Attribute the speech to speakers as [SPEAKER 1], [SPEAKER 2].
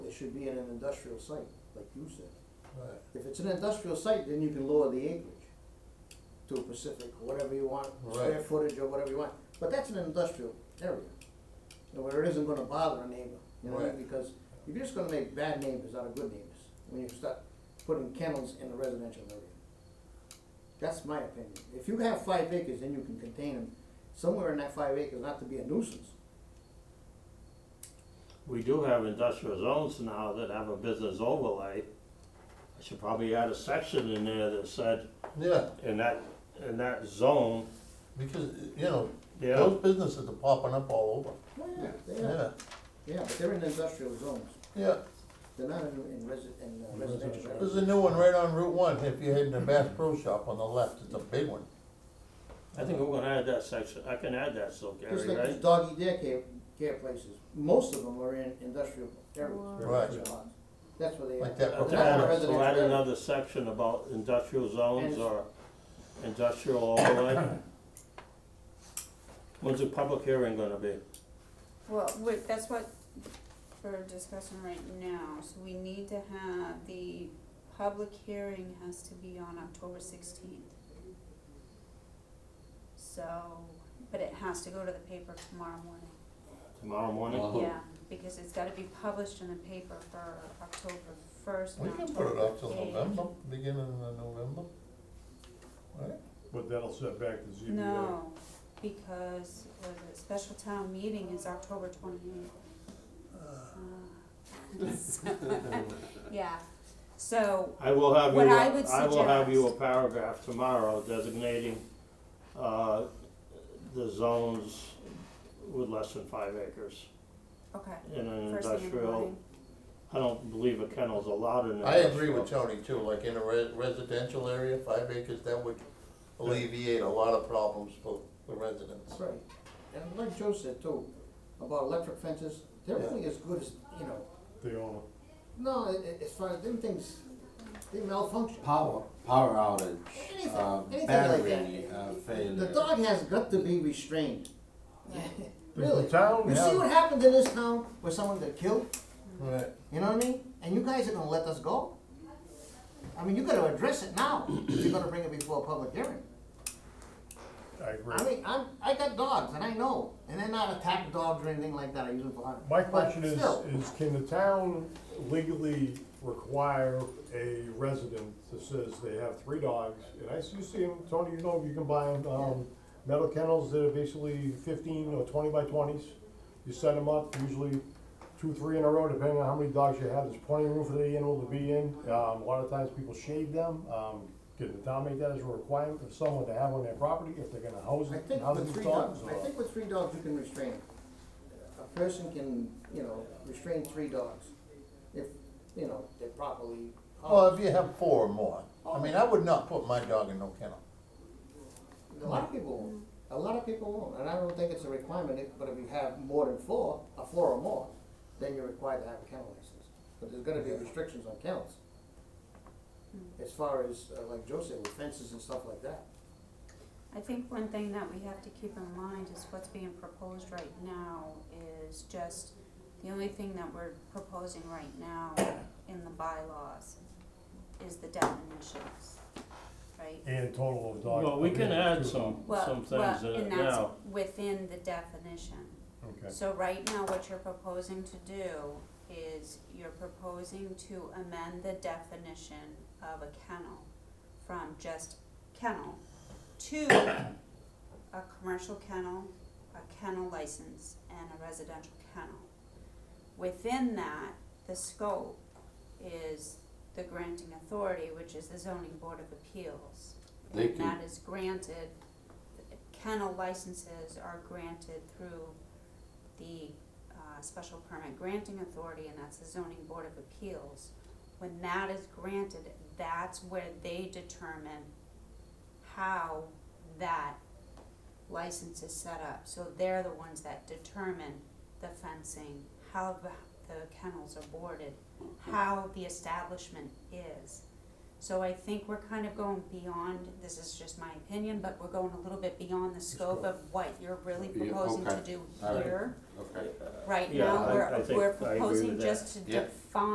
[SPEAKER 1] should be in an industrial site, like you said.
[SPEAKER 2] Right.
[SPEAKER 1] If it's an industrial site, then you can lower the acreage to a Pacific, whatever you want, square
[SPEAKER 2] Right.
[SPEAKER 1] footage or whatever you want. But that's an industrial area, you know, where it isn't gonna bother a neighbor, you know,
[SPEAKER 2] Right.
[SPEAKER 1] because you're just gonna make bad neighbors out of good neighbors when you start putting kennels in the residential area. That's my opinion. If you have five acres, then you can contain them somewhere in that five acres, not to be a nuisance.
[SPEAKER 3] We do have industrial zones now that have a business overlay. I should probably add a section in there that said,
[SPEAKER 2] Yeah,
[SPEAKER 3] in that, in that zone,
[SPEAKER 2] because, you know,
[SPEAKER 3] yeah,
[SPEAKER 2] those businesses are popping up all
[SPEAKER 1] Oh, yeah, they are,
[SPEAKER 2] over,
[SPEAKER 1] yeah, but they're in industrial zones,
[SPEAKER 2] yeah, yeah.
[SPEAKER 1] they're not in, in resi- in uh, residential areas.
[SPEAKER 2] There's a new one right on Route One, if you're heading to Bass Pro Shop on the left, it's a big one.
[SPEAKER 3] I think we're gonna add that section, I can add that still,
[SPEAKER 1] Just
[SPEAKER 3] Gary,
[SPEAKER 1] like these
[SPEAKER 3] right?
[SPEAKER 1] doggy daycare, care places, most of them are in industrial areas.
[SPEAKER 2] Right.
[SPEAKER 1] residential lots. That's where they are.
[SPEAKER 2] Like that
[SPEAKER 3] Uh,
[SPEAKER 1] They're
[SPEAKER 3] to
[SPEAKER 1] not in
[SPEAKER 3] add
[SPEAKER 1] a
[SPEAKER 3] a-
[SPEAKER 1] residential
[SPEAKER 3] So add
[SPEAKER 1] area.
[SPEAKER 3] another section about industrial zones
[SPEAKER 1] And-
[SPEAKER 3] or industrial overlay. When's the public hearing gonna be?
[SPEAKER 4] Well, wait, that's what we're discussing right now, so we need to have, the public hearing has to be on October sixteenth. So, but it has to go to the paper tomorrow morning,
[SPEAKER 3] Tomorrow morning?
[SPEAKER 5] Wow.
[SPEAKER 4] yeah, because it's gotta be published in the paper for October first
[SPEAKER 2] We
[SPEAKER 4] and
[SPEAKER 2] can put it up till
[SPEAKER 4] October eighth.
[SPEAKER 2] November, beginning of November. Right?
[SPEAKER 6] But that'll set back the ZBA.
[SPEAKER 3] uh,
[SPEAKER 4] No, because the special town meeting is October twenty-eighth. Yeah, so,
[SPEAKER 3] I will have you,
[SPEAKER 4] What I would
[SPEAKER 3] a- I will have you a
[SPEAKER 4] suggest-
[SPEAKER 3] paragraph tomorrow designating, uh, the zones with less than five acres
[SPEAKER 4] okay,
[SPEAKER 3] in an
[SPEAKER 4] first thing in the
[SPEAKER 3] industrial.
[SPEAKER 4] morning,
[SPEAKER 3] I don't believe a kennel's allowed in an
[SPEAKER 2] I
[SPEAKER 3] industrial.
[SPEAKER 2] agree with Tony too, like in a re- residential area, five acres, that would alleviate a lot of problems for the residents.
[SPEAKER 1] That's right, and like Joe said too, about electric fences, they're
[SPEAKER 2] Yeah.
[SPEAKER 1] really as good as, you know,
[SPEAKER 6] They all,
[SPEAKER 1] no, i- i- as far as them things, they malfunction.
[SPEAKER 5] Power, power outage,
[SPEAKER 1] Anything,
[SPEAKER 5] uh,
[SPEAKER 1] anything like
[SPEAKER 5] battery
[SPEAKER 1] that.
[SPEAKER 5] uh,
[SPEAKER 1] The
[SPEAKER 5] failure.
[SPEAKER 1] dog has got to be restrained.
[SPEAKER 6] the
[SPEAKER 1] Really,
[SPEAKER 6] town,
[SPEAKER 1] you see what happened in this town where someone got killed?
[SPEAKER 2] Right.
[SPEAKER 1] You know what I mean? And you guys are gonna let us go? I mean, you gotta address it now, if you're gonna bring it before a public hearing.
[SPEAKER 6] I agree.
[SPEAKER 1] I mean, I'm, I got dogs, and I know, and they're not attack dogs or anything like that, I use them for hunting.
[SPEAKER 6] My
[SPEAKER 1] But
[SPEAKER 6] question is,
[SPEAKER 1] still,
[SPEAKER 6] is can the town legally require a resident that says they have three dogs? And I see, you see them, Tony, you know, you can buy them, um, metal kennels that are basically fifteen or twenty by twenties. You set them up, usually two, three in a row, depending on how many dogs you have, there's plenty of room for the animal to be in. Um, a lot of times people shade them, um, can the town make that as a requirement for someone to have on their property if they're gonna house,
[SPEAKER 1] I think
[SPEAKER 6] house
[SPEAKER 1] with
[SPEAKER 6] these
[SPEAKER 1] three
[SPEAKER 6] dogs?
[SPEAKER 1] dogs,
[SPEAKER 6] or-
[SPEAKER 1] I think with three dogs, you can restrain. them. A person can, you know, restrain three dogs, if, you know, they're properly.
[SPEAKER 2] Well, if you have four or more, I mean, I would not put my dog in no kennel.
[SPEAKER 1] A lot of people won't, a lot of people won't, and I don't think it's a requirement, if- but if you have more than four, a four or more, then you're required to have a kennel license. But there's gonna be restrictions on kennels. As far as, uh, like Joe said, with fences and stuff like that.
[SPEAKER 4] I think one thing that we have to keep in mind is what's being proposed right now is just, the only thing that we're proposing right now in the bylaws is the definitions, right?
[SPEAKER 6] And total of dogs.
[SPEAKER 3] Well, we can add
[SPEAKER 6] Two.
[SPEAKER 3] some, some
[SPEAKER 4] Well,
[SPEAKER 3] things uh,
[SPEAKER 4] well,
[SPEAKER 3] in it
[SPEAKER 4] and
[SPEAKER 3] now.
[SPEAKER 4] that's within the definition.
[SPEAKER 6] Okay.
[SPEAKER 4] So right now, what you're proposing to do is you're proposing to amend the definition of a kennel from just kennel to a commercial kennel, a kennel license, and a residential kennel. Within that, the scope is the granting authority, which is the zoning board of appeals.
[SPEAKER 5] They
[SPEAKER 4] And
[SPEAKER 5] can,
[SPEAKER 4] that is granted, kennel licenses are granted through the uh, special permit granting authority, and that's the zoning board of appeals. When that is granted, that's where they determine how that license is set up. So they're the ones that determine the fencing, how the the kennels are boarded, how the establishment is. So I think we're kind of going beyond, this is just my opinion, but we're going a little bit beyond the scope of what you're really
[SPEAKER 5] Yeah,
[SPEAKER 4] proposing to
[SPEAKER 5] okay.
[SPEAKER 4] do
[SPEAKER 5] All right.
[SPEAKER 4] here.
[SPEAKER 5] okay.
[SPEAKER 4] Right
[SPEAKER 3] Yeah,
[SPEAKER 4] now,
[SPEAKER 3] I- I
[SPEAKER 4] we're,
[SPEAKER 3] think I
[SPEAKER 4] we're
[SPEAKER 3] agree
[SPEAKER 4] proposing
[SPEAKER 3] with that.
[SPEAKER 4] just to
[SPEAKER 5] Yeah.
[SPEAKER 4] define